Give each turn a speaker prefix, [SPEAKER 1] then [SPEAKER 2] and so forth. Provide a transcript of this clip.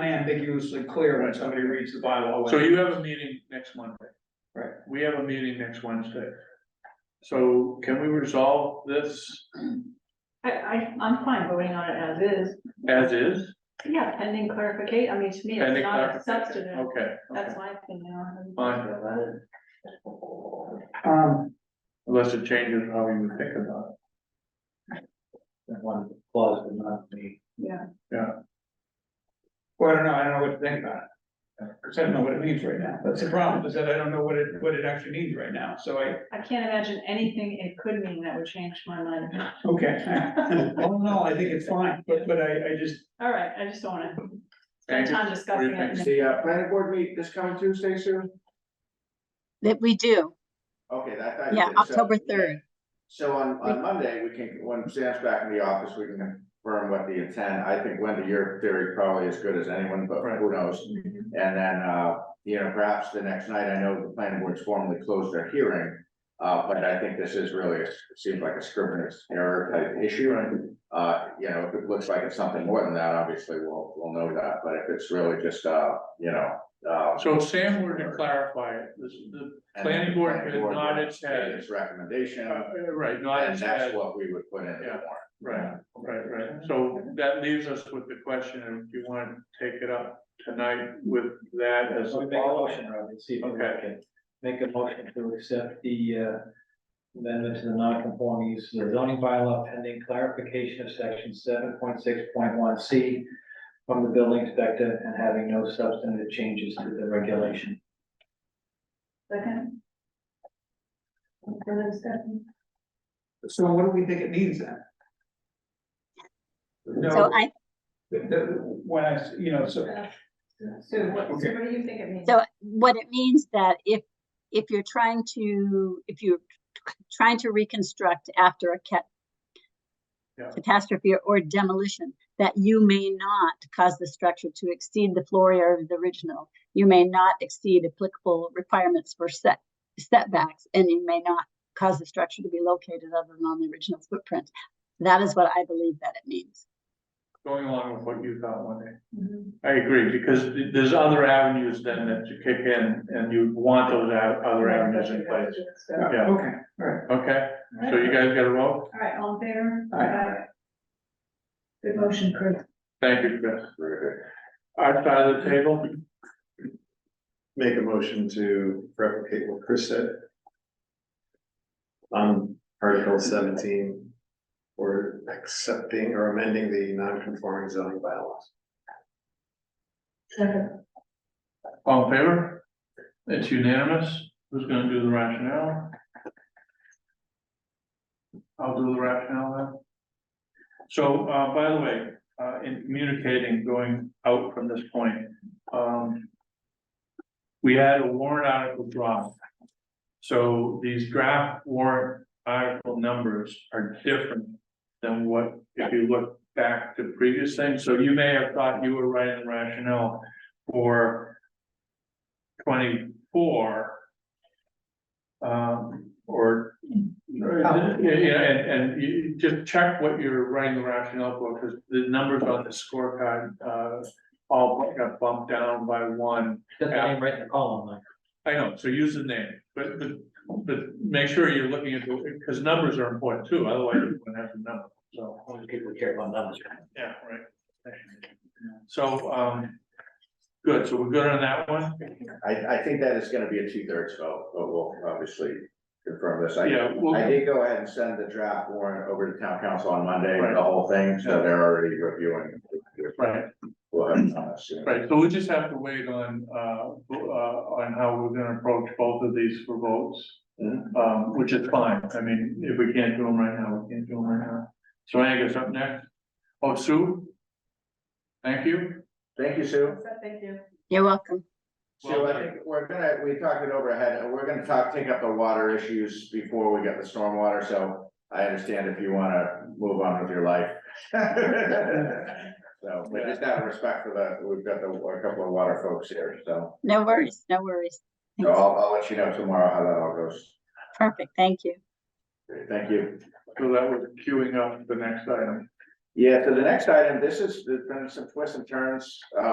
[SPEAKER 1] unambiguously clear when somebody reads the bylaw.
[SPEAKER 2] So you have a meeting next Monday.
[SPEAKER 1] Right.
[SPEAKER 2] We have a meeting next Wednesday. So can we resolve this
[SPEAKER 3] I, I, I'm fine voting on it as is,
[SPEAKER 2] as is?
[SPEAKER 3] yeah, pending clarification, I mean, to me, it's
[SPEAKER 2] Pending
[SPEAKER 3] not a
[SPEAKER 2] clarification.
[SPEAKER 3] substantive,
[SPEAKER 2] Okay, okay,
[SPEAKER 3] that's my opinion on it.
[SPEAKER 2] Fine.
[SPEAKER 1] Um,
[SPEAKER 2] unless it changes how you would think about
[SPEAKER 4] That one clause would not be.
[SPEAKER 3] Yeah,
[SPEAKER 1] well, I don't know, I don't know what to think about it. Cause I don't know what it means right now, that's the problem, is that I don't know what it, what it actually means right now, so I,
[SPEAKER 3] I can't imagine anything it could mean that would change my mind.
[SPEAKER 1] okay. All in all, I think it's fine, but, but I, I just,
[SPEAKER 3] All right, I just don't wanna
[SPEAKER 2] Thank
[SPEAKER 3] spend
[SPEAKER 2] you.
[SPEAKER 3] time discussing
[SPEAKER 2] What do
[SPEAKER 3] it.
[SPEAKER 4] The uh, planning board meet this coming Tuesday, Sue?
[SPEAKER 5] That we do,
[SPEAKER 4] Okay, that. that-
[SPEAKER 5] yeah,
[SPEAKER 4] so-
[SPEAKER 5] October third.
[SPEAKER 4] So on, on Monday, we can, when Sam's back in the office, we can confirm what the intent, I think Wendy, your theory probably as good as anyone, but
[SPEAKER 2] Right.
[SPEAKER 4] who knows?
[SPEAKER 5] Mm-hmm.
[SPEAKER 4] And then, uh, you know, perhaps the next night, I know the planning board's formally closed their hearing. Uh, but I think this is really, it seems like a scrivener's error type issue. Uh, you know, if it looks like it's something more than that, obviously, we'll, we'll know that, but if it's really just, uh, you know, uh.
[SPEAKER 2] it. So if Sam were to clarify it, this is the,
[SPEAKER 4] and
[SPEAKER 2] planning
[SPEAKER 4] the
[SPEAKER 2] board
[SPEAKER 4] planning
[SPEAKER 2] did nod
[SPEAKER 4] would
[SPEAKER 2] its head.
[SPEAKER 4] make Its recommendation,
[SPEAKER 2] uh, right, not
[SPEAKER 4] and
[SPEAKER 2] as
[SPEAKER 4] that's
[SPEAKER 2] had,
[SPEAKER 4] what we would put in the
[SPEAKER 2] Yeah.
[SPEAKER 4] warrant.
[SPEAKER 2] right, right, right. So that leaves us with the question, and if you want to take it up tonight with that as
[SPEAKER 6] So
[SPEAKER 2] a
[SPEAKER 6] we make a
[SPEAKER 2] follow-up.
[SPEAKER 6] motion, Robin, see if we
[SPEAKER 2] Okay.
[SPEAKER 6] can make a motion to accept the uh, amendment to the non-conforming use of the zoning bylaw pending clarification of section seven point six point one C from the building inspector and having no substantive changes to the regulation.
[SPEAKER 3] Second. Further discussion?
[SPEAKER 1] so what do we think it means then?
[SPEAKER 5] So
[SPEAKER 1] No,
[SPEAKER 5] I,
[SPEAKER 1] the, the, when I, s- you know, so.
[SPEAKER 3] Sue, what, Sue,
[SPEAKER 1] Okay.
[SPEAKER 3] what do you think it means?
[SPEAKER 5] so what it means that if, if you're trying to, if you're trying to reconstruct after a cat
[SPEAKER 2] Yeah.
[SPEAKER 5] catastrophe or demolition, that you may not cause the structure to exceed the floor area of the original. You may not exceed applicable requirements for set setbacks, and you may not cause the structure to be located other than on the original footprint. That is what I believe that it means.
[SPEAKER 2] going along with what you thought, Wendy.
[SPEAKER 3] Mhm.
[SPEAKER 2] I agree, because th- there's other avenues then that you kick in, and you want those a- other avenues in place,
[SPEAKER 3] So, All
[SPEAKER 2] Yeah.
[SPEAKER 1] Okay, all right.
[SPEAKER 2] okay? So you guys got a vote?
[SPEAKER 3] right, all in favor? Uh,
[SPEAKER 1] All right.
[SPEAKER 3] Aye. Good motion, Chris.
[SPEAKER 2] Thank you, Chris. Our side of the table,
[SPEAKER 7] make a motion to replicate what Chris said. On Article seventeen, or accepting or amending the non-conforming zoning bylaws.
[SPEAKER 2] all in favor? It's unanimous, who's gonna do the rationale? I'll do the rationale then. So, uh, by the way, uh, in communicating, going out from this point, um. We had a warrant article draft. So these draft warrant article numbers are different than what, if you look back to previous things, so you may have thought you were writing rationale for. Twenty-four. Um, or, yeah, yeah, and, and you just check what you're writing the rationale for, because the numbers on the scorecard, uh. All got bumped down by one,
[SPEAKER 6] Put the name right in the column, like.
[SPEAKER 2] I know, so use the name, but, but, but make sure you're looking at, because numbers are important too, otherwise you wouldn't have the number, so.
[SPEAKER 6] Only people care about numbers.
[SPEAKER 2] Yeah, right. So, um, good, so we're good on that one?
[SPEAKER 4] I, I think that is gonna be a two-thirds vote, but we'll obviously confirm this. I,
[SPEAKER 2] Yeah, well,
[SPEAKER 4] I did go ahead and send the draft warrant over to town council on Monday,
[SPEAKER 2] Right.
[SPEAKER 4] the whole thing, so
[SPEAKER 2] Yeah.
[SPEAKER 4] they're already reviewing.
[SPEAKER 2] right,
[SPEAKER 4] We'll have it on us soon.
[SPEAKER 2] right, so we just have to wait on, uh, uh, on how we're gonna approach both of these for votes.
[SPEAKER 4] Mhm.
[SPEAKER 2] Um, which is fine, I mean, if we can't do them right now, we can't do them right now. So Angus up next. Oh, Sue? Thank you.
[SPEAKER 4] Thank you, Sue.
[SPEAKER 3] Thank you.
[SPEAKER 5] You're welcome.
[SPEAKER 4] So I think we're gonna, we talked it over ahead, and we're gonna talk, take up the water issues before we get the stormwater, so I understand if you wanna move on with your life. So, but just out of respect for that, we've got the, a couple of water folks here, so,
[SPEAKER 5] No worries, no worries.
[SPEAKER 4] so I'll, I'll let you know tomorrow how that all goes.
[SPEAKER 5] Perfect, thank you.
[SPEAKER 4] Great, Thank you.
[SPEAKER 2] So that was queuing up the next item.
[SPEAKER 4] Yeah, so the next item, this is, there's been some twists and turns, uh,